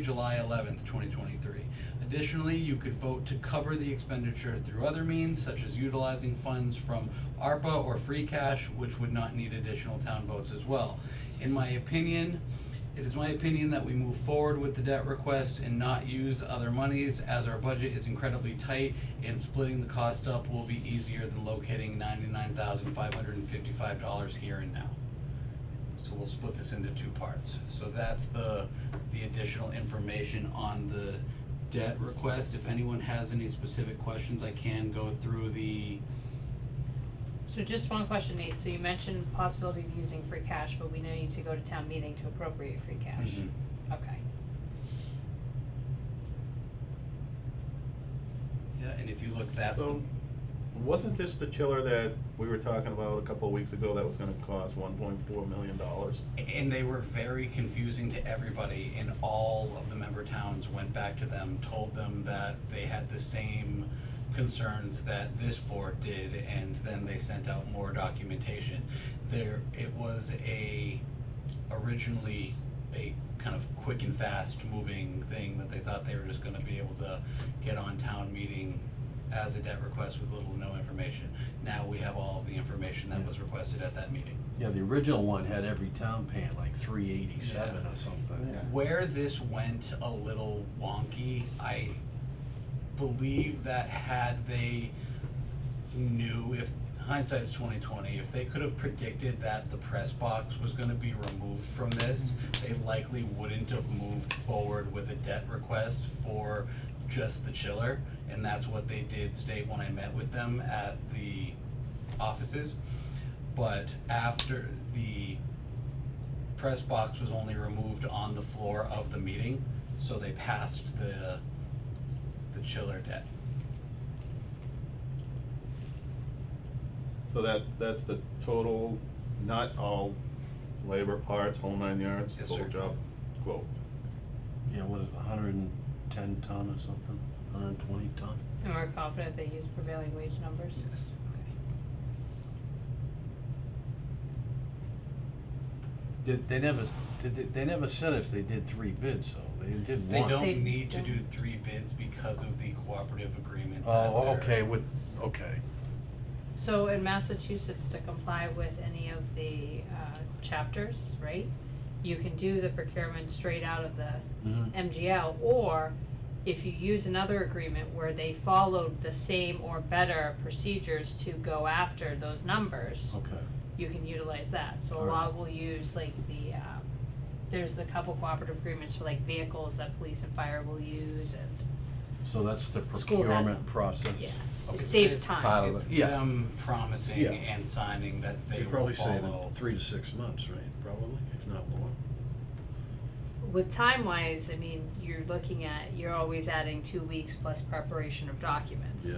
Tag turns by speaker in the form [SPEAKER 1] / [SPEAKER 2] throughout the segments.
[SPEAKER 1] July eleventh, twenty twenty-three. Additionally, you could vote to cover the expenditure through other means, such as utilizing funds from ARPA or free cash, which would not need additional town votes as well. In my opinion, it is my opinion that we move forward with the debt request and not use other monies, as our budget is incredibly tight, and splitting the cost up will be easier than locating ninety-nine thousand five hundred and fifty-five dollars here and now. So we'll split this into two parts. So that's the, the additional information on the debt request. If anyone has any specific questions, I can go through the,
[SPEAKER 2] So just one question, Nate, so you mentioned possibility of using free cash, but we now need to go to town meeting to appropriate free cash.
[SPEAKER 1] Mhm.
[SPEAKER 2] Okay,
[SPEAKER 1] yeah, and if you look, that's, the-
[SPEAKER 3] So, wasn't this the chiller that we were talking about a couple of weeks ago that was gonna cost one point four million dollars?
[SPEAKER 1] and they were very confusing to everybody, and all of the member towns went back to them, told them that they had the same concerns that this board did, and then they sent out more documentation. There, it was a, originally a kind of quick and fast moving thing that they thought they were just gonna be able to get on town meeting as a debt request with little to no information. Now we have all of the information that was requested at that meeting.
[SPEAKER 4] Yeah, the original one had every town paying like three eighty-seven or something.
[SPEAKER 3] Yeah.
[SPEAKER 1] Where this went a little wonky, I believe that had they knew if hindsight's twenty twenty, if they could have predicted that the press box was gonna be removed from this, they likely wouldn't have moved forward with a debt request for just the chiller, and that's what they did state when I met with them at the offices. But after the press box was only removed on the floor of the meeting, so they passed the, the chiller debt.
[SPEAKER 3] So that, that's the total, not all labor parts, whole nine yards,
[SPEAKER 1] Yes,
[SPEAKER 3] total
[SPEAKER 1] sir.
[SPEAKER 3] job quote.
[SPEAKER 4] Yeah, what is it, hundred and ten ton or something, hundred and twenty ton?
[SPEAKER 2] and we're confident they use prevailing wage numbers? Okay.
[SPEAKER 4] Did, they never, did, they- they never said if they did three bids, so they did
[SPEAKER 1] They
[SPEAKER 4] one.
[SPEAKER 2] They
[SPEAKER 1] don't need to do
[SPEAKER 2] don't.
[SPEAKER 1] three bids because of the cooperative agreement that
[SPEAKER 4] Oh,
[SPEAKER 1] they're-
[SPEAKER 4] okay, with, okay,
[SPEAKER 2] So in Massachusetts, to comply with any of the uh chapters, right? You can do the procurement straight out of the
[SPEAKER 1] Mm-hmm.
[SPEAKER 4] Mhm.
[SPEAKER 2] MGL, or if you use another agreement where they followed the same or better procedures to go after those numbers.
[SPEAKER 4] okay.
[SPEAKER 2] you can utilize that. So a
[SPEAKER 4] Alright.
[SPEAKER 2] lot will use like the, um, there's a couple cooperative agreements for like vehicles that police and fire will use and
[SPEAKER 4] So that's the
[SPEAKER 2] School has
[SPEAKER 4] procurement
[SPEAKER 2] them.
[SPEAKER 4] process?
[SPEAKER 2] Yeah.
[SPEAKER 4] Okay.
[SPEAKER 2] it saves
[SPEAKER 1] It's
[SPEAKER 2] time.
[SPEAKER 4] of
[SPEAKER 1] It's
[SPEAKER 4] it, yeah.
[SPEAKER 1] them promising
[SPEAKER 4] Yeah.
[SPEAKER 1] and signing that they
[SPEAKER 4] You're
[SPEAKER 1] will
[SPEAKER 4] probably
[SPEAKER 1] follow.
[SPEAKER 4] saving three to six months, right, probably, if not more.
[SPEAKER 2] With time wise, I mean, you're looking at, you're always adding two weeks plus preparation of documents.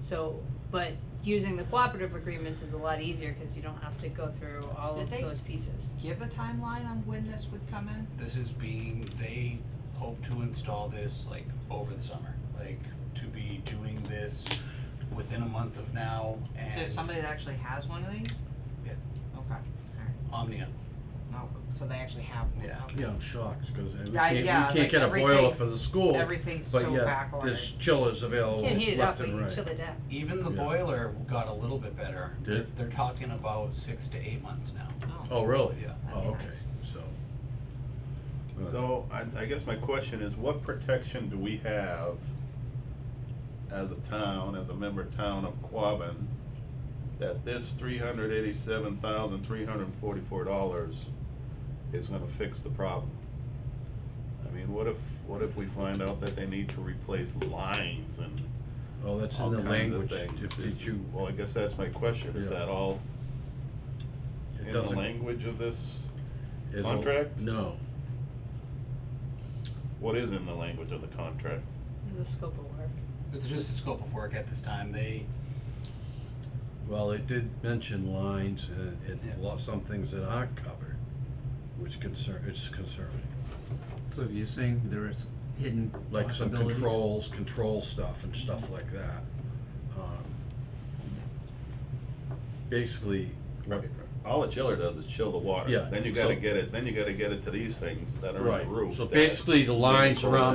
[SPEAKER 2] So, but using the cooperative agreements is a lot easier because you don't have to go through all
[SPEAKER 5] Did
[SPEAKER 2] of
[SPEAKER 5] they-
[SPEAKER 2] those pieces.
[SPEAKER 5] give a timeline on when this would come in?
[SPEAKER 1] This is being, they hope to install this like over the summer, like to be doing this within a month of now and.
[SPEAKER 5] Is there somebody that actually has one of these?
[SPEAKER 1] Yeah.
[SPEAKER 5] Okay,
[SPEAKER 1] Omnia,
[SPEAKER 5] no, so they actually have one,
[SPEAKER 1] Yeah.
[SPEAKER 5] okay.
[SPEAKER 4] Yeah, I'm shocked, cause we
[SPEAKER 2] Uh,
[SPEAKER 5] I-
[SPEAKER 4] can't, we
[SPEAKER 5] yeah,
[SPEAKER 4] can't
[SPEAKER 5] like
[SPEAKER 4] get a boiler for
[SPEAKER 5] everything's-
[SPEAKER 4] the school,
[SPEAKER 5] Everything's
[SPEAKER 4] but
[SPEAKER 5] so
[SPEAKER 4] yeah,
[SPEAKER 5] back
[SPEAKER 4] there's chillers available
[SPEAKER 2] Can't heat it up,
[SPEAKER 4] Oh, left
[SPEAKER 2] but
[SPEAKER 4] and
[SPEAKER 2] you
[SPEAKER 4] right.
[SPEAKER 2] can chill it down.
[SPEAKER 1] even the
[SPEAKER 4] Yeah.
[SPEAKER 1] boiler got a little bit better.
[SPEAKER 4] Did
[SPEAKER 1] They're-
[SPEAKER 4] it?
[SPEAKER 1] They're talking about six to eight months now.
[SPEAKER 4] Oh, really?
[SPEAKER 1] Yeah.
[SPEAKER 4] Oh,
[SPEAKER 5] That'd be
[SPEAKER 4] okay, so. Alright.
[SPEAKER 3] So I, I guess my question is, what protection do we have as a town, as a member town of Quabbin, that this three hundred eighty-seven thousand, three hundred and forty-four dollars is gonna fix the problem? I mean, what if, what if we find out that they need to replace lines and
[SPEAKER 4] Well, that's in
[SPEAKER 3] all
[SPEAKER 4] the
[SPEAKER 3] kinds of
[SPEAKER 4] language,
[SPEAKER 3] things?
[SPEAKER 4] if, did
[SPEAKER 3] Is-
[SPEAKER 4] you,
[SPEAKER 3] Well, I guess that's my question, is
[SPEAKER 4] Yeah.
[SPEAKER 3] that all
[SPEAKER 4] it
[SPEAKER 3] in the
[SPEAKER 4] doesn't.
[SPEAKER 3] language of this?
[SPEAKER 4] is a-
[SPEAKER 3] contract?
[SPEAKER 4] No,
[SPEAKER 3] What is in the language of the contract?
[SPEAKER 2] There's a scope of work.
[SPEAKER 1] It's just the scope of work at this time. They,
[SPEAKER 4] well, it did mention lines and,
[SPEAKER 1] Yeah.
[SPEAKER 4] and lot, some things that aren't covered, which concern, it's concerning.
[SPEAKER 6] So you're saying there is hidden
[SPEAKER 4] Like some
[SPEAKER 6] possibilities?
[SPEAKER 4] controls, control stuff and stuff like that. Um, Basically, what,
[SPEAKER 3] all the chiller does is chill the water.
[SPEAKER 4] Yeah,
[SPEAKER 3] Then you gotta
[SPEAKER 4] so-
[SPEAKER 3] get it, then you gotta get it to these things that are in
[SPEAKER 4] Right,
[SPEAKER 3] the roof.
[SPEAKER 4] so
[SPEAKER 3] that-
[SPEAKER 4] basically the lines around